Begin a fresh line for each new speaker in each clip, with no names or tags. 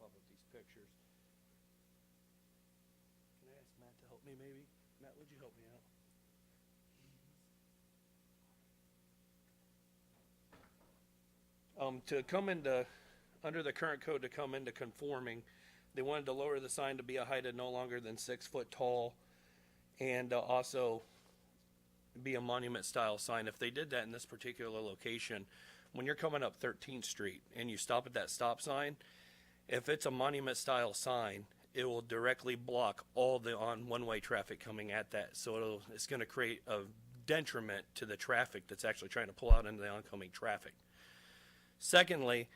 public these pictures. Can I ask Matt to help me maybe? Matt, would you help me out? Um, to come into, under the current code, to come into conforming, they wanted to lower the sign to be a height of no longer than six foot tall and uh, also be a monument style sign. If they did that in this particular location, when you're coming up 13th Street and you stop at that stop sign, if it's a monument style sign, it will directly block all the on one way traffic coming at that. So it'll, it's going to create a detriment to the traffic that's actually trying to pull out into the oncoming traffic. Secondly,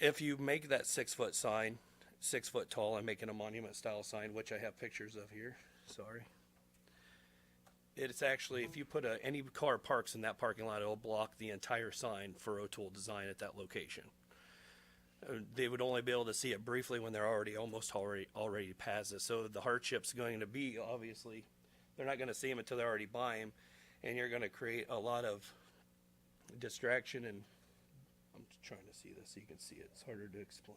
if you make that six foot sign, six foot tall, I'm making a monument style sign, which I have pictures of here. Sorry. It's actually, if you put a, any car parks in that parking lot, it'll block the entire sign for O'Toole Design at that location. Uh, They would only be able to see it briefly when they're already, almost already, already past it. So the hardship's going to be, obviously, they're not gonna see them until they already buy them. And you're gonna create a lot of distraction and, I'm trying to see this so you can see it. It's harder to explain.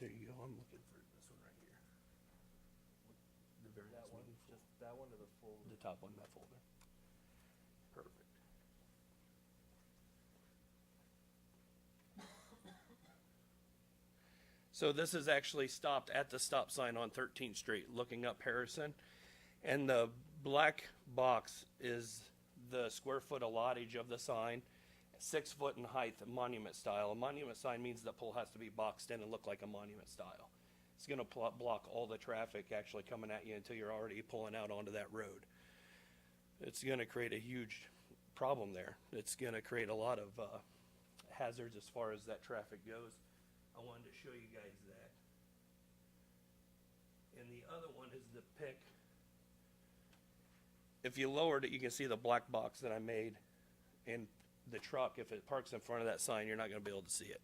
There you go. I'm looking for this one right here. The very
That
last
one,
one.
just that one to the full.
The top one, that folder. Perfect. So this is actually stopped at the stop sign on Thirteenth Street, looking up Harrison. And the black box is the square foot allotage of the sign, six foot in height, monument style. A monument sign means the pole has to be boxed in and look like a monument style. It's gonna pl- block all the traffic actually coming at you until you're already pulling out onto that road. It's gonna create a huge problem there. It's gonna create a lot of, uh, hazards as far as that traffic goes. I wanted to show you guys that. And the other one is the pick. If you lowered it, you can see the black box that I made. And the truck, if it parks in front of that sign, you're not gonna be able to see it.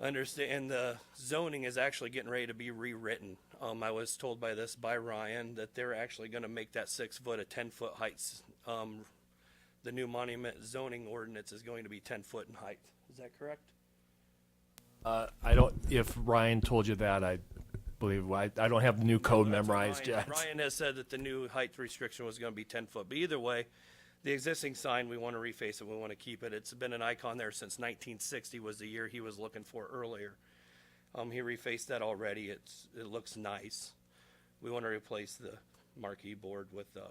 Understand, and the zoning is actually getting ready to be rewritten. Um, I was told by this by Ryan that they're actually gonna make that six foot a ten foot heights. Um, the new monument zoning ordinance is going to be ten foot in height. Is that correct?
Uh, I don't, if Ryan told you that, I believe, I, I don't have the new code
That's what
memorized
Ryan-
yet.
Ryan has said that the new height restriction was gonna be ten foot, but either way, the existing sign, we wanna reface it, we wanna keep it. It's been an icon there since nineteen sixty was the year he was looking for earlier. Um, he refaced that already, it's, it looks nice. We wanna replace the marquee board with a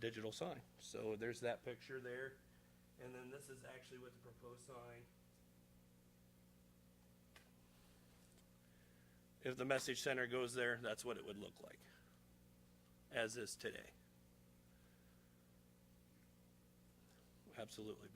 digital sign. So there's that picture there, and then this is actually what the proposed sign. If the message center goes there, that's what it would look like as is today. Absolutely